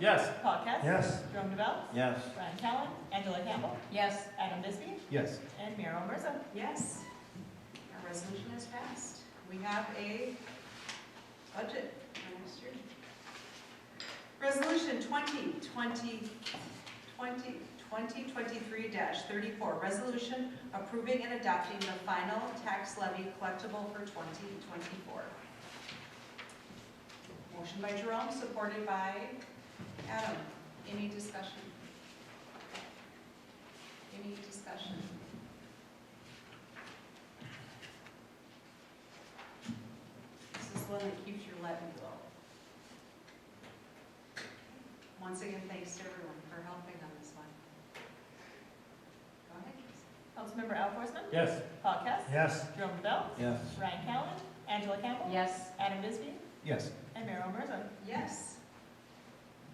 Yes. Paul Guest. Yes. Jerome DeBell. Yes. Brian Callen. Angela Campbell. Yes. Adam Bisbee. Yes. And Mayor Olbersen. Yes. Our resolution is passed. We have a budget for next year. Resolution 2020, 2023-34, resolution approving and adopting the final tax levy collectible for 2024. Motion by Jerome, supported by Adam. Any discussion? Any discussion? This is one that keeps your levy low. Once again, thanks to everyone for helping on this one. Go ahead, Casey. Councilmember Al Porson. Yes. Paul Guest. Yes. Jerome DeBell. Yes. Brian Callen. Angela Campbell. Yes. Adam Bisbee. Yes. And Mayor Olbersen. Yes.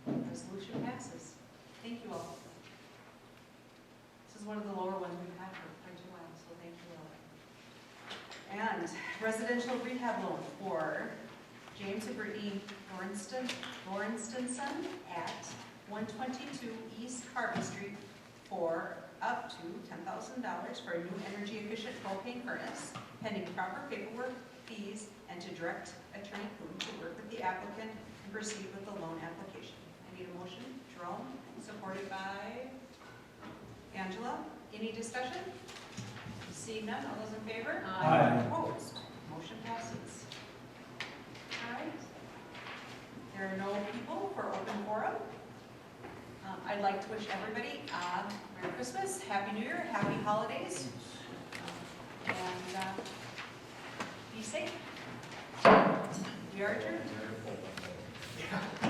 Resolution passes. Thank you all. This is one of the lower ones we've had for quite a while, so thank you all. And residential rehab loan for James and Brittany Lawrenston, Lawrenstonson at one twenty-two East Harvey Street for up to ten thousand dollars for a new energy efficient propane furnace pending proper paperwork, fees, and to direct Attorney Coon to work with the applicant and proceed with the loan application. I need a motion. Jerome, supported by Angela. Any discussion? Seeing none, all those in favor? Aye. Opposed? Motion passes. All right. There are no people for open forum. Um, I'd like to wish everybody uh, Merry Christmas, Happy New Year, Happy Holidays, and uh, be safe. We are adjourned.